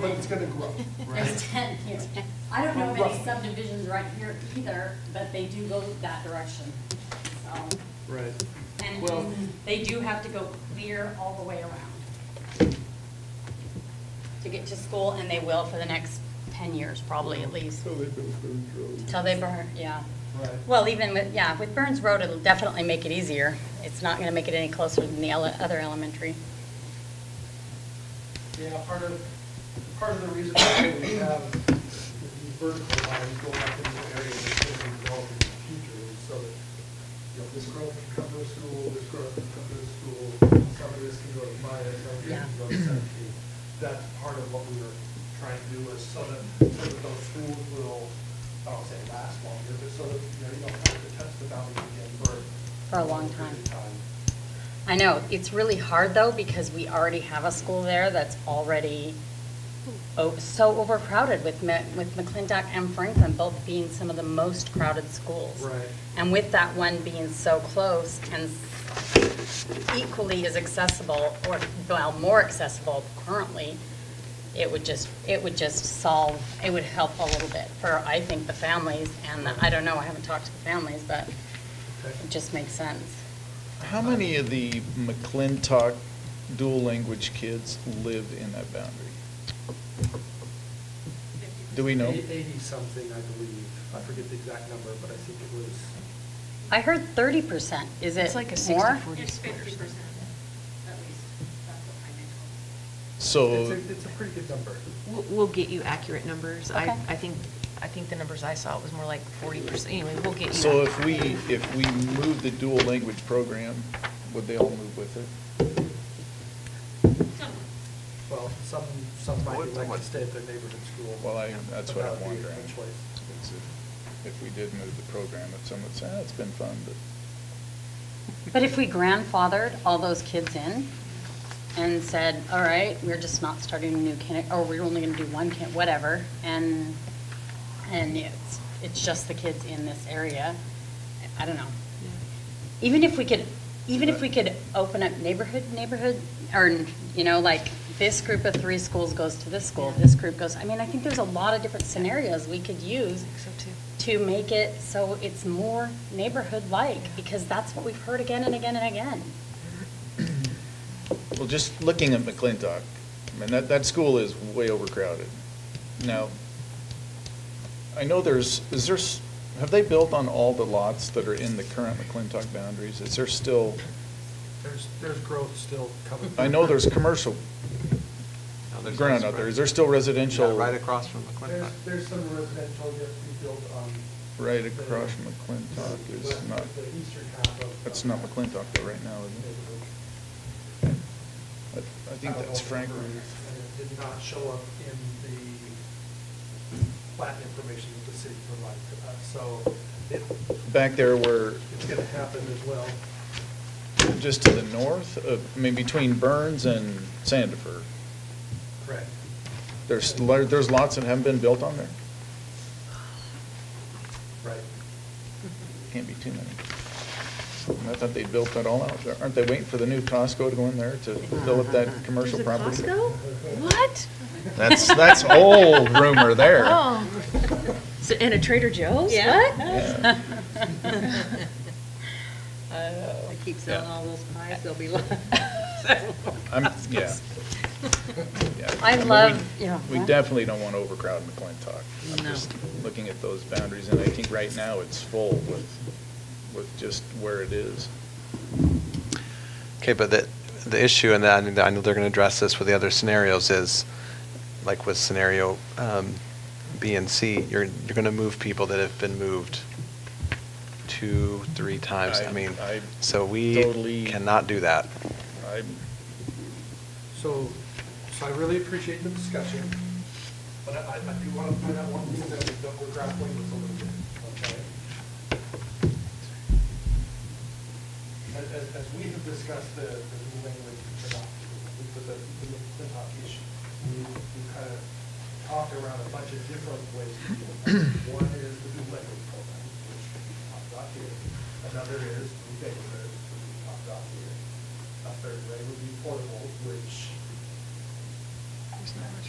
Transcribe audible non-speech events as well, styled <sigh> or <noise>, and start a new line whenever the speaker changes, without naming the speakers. but it's gonna grow.
There's ten here. I don't know of any subdivisions right here either, but they do go that direction, so.
Right.
And
Well-
they do have to go clear all the way around to get to school, and they will for the next ten years, probably at least,
So they built Burns Road.
till they burn, yeah.
Right.
Well, even with, yeah, with Burns Road, it'll definitely make it easier. It's not gonna make it any closer than the ele- other elementary.
Yeah, part of, part of the reason why we have these vertical lines going up into the area that's going to be developed in the future is so that, you know, this growth can come to the school, this growth can come to the school, some of this can go to Maya, some of this
Yeah.
can go to Central Peak. That's part of what we were trying to do is so that, so that those schools will, I don't say last longer, but so that, you know, you don't have to touch the boundary again for.
For a long time.
period of time.
I know, it's really hard though, because we already have a school there that's already o- so overcrowded with, Ma- with McClintock and Franklin both being some of the most crowded schools.
Right.
And with that one being so close and equally as accessible, or, well, more accessible currently, it would just, it would just solve, it would help a little bit for, I think, the families and the, I don't know, I haven't talked to the families, but it just makes sense.
How many of the McClintock dual language kids live in that boundary? Do we know?
Eighty-something, I believe. I forget the exact number, but I think it was,
I heard thirty percent. Is it
It's like a
more?
60/40.
It's fifty percent, at least, that's what I think.
it's
So,
a, it's a pretty good number.
We'll, we'll get you accurate numbers. I,
Okay.
I think, I think the numbers I saw was more like forty percent. Anyway, we'll get you.
so
that.
if we, if we move the dual language program, would they all move with it?
Some,
Well, some, some might
What-
elect
what-
to stay at their neighborhood school.
Well, I, that's
But
what
that
I'm
would be a
wondering.
choice.
Is it- If we did move the program, if someone said, ah, it's been fun, but.
But if we grandfathered all those kids in and said, all right, we're just not starting a new kindergarten, or we're only gonna do one kid, whatever, and, and it's, it's just the kids in this area, I don't know. Even if we could, even if we could open up neighborhood, neighborhood, or, you know, like, this group of three schools goes to this school, this group goes, I mean, I think there's a lot of different scenarios we could
I
use
think so too.
to make it so it's more neighborhood-like, because that's what we've heard again and again and again.
Well, just looking at McClintock, I mean, that, that school is way overcrowded. Now, I know there's, is there, s- have they built on all the lots that are in the current McClintock boundaries? Is there still,
There's, there's growth still coming.
I know there's commercial
No, there's
ground
no
out there.
spread.
Is there still residential?
Yeah, Right across from
There's,
McClintock.
there's some residential yet to be built on.
Right
the-
across from McClintock
the
is
west-
not-
The eastern half of. uh,
That's not McClintock though right now, is it?
Neighborhood.
I I think
Out of
that's
all the
Franklin.
numbers, And it did not show up in the plat information that the city provided to us, so it,
Back there where,
it's gonna happen as well.
just to the north, of- I mean, between Burns and Sandifer,
Correct.
there's, lo- there's lots that haven't been built on there?
Right.
Can't be too many. I thought they built that all out. Aren't they waiting for the new Costco to go in there to fill up that commercial property?
What?
That's, that's old rumor there.
Oh. <laughs> So- And a Trader Joe's?
Yeah.
<laughs>
<laughs>
<laughs>
Uh,
I keep
selling all
those pies, they'll be.
I'm, yeah. yeah.
I
mean,
love-
we-
yeah.
We definitely don't want to overcrowd McClintock. I'm just looking at those boundaries, and I think right now it's full with, with just where it is.
Okay, but the, the issue, and I know- I know they're going to address this with the other scenarios, is like with scenario um, B and C, you're, you're going to move people that have been moved two, three times.
I-
I mean,
I
so
totally-
we cannot do that.
I,
So, so I really appreciate the discussion, but I, I I do want to point out one thing that we- that we're grappling with a little bit, okay? As, as- as we have discussed the, the new language, for doc- for the, for the Clintock issue, we, we kind of talked around a bunch of different ways. to deal with that. One is the new language program, which we talked about here. Another is new neighborhoods, which we talked about here. A third way would be portables, which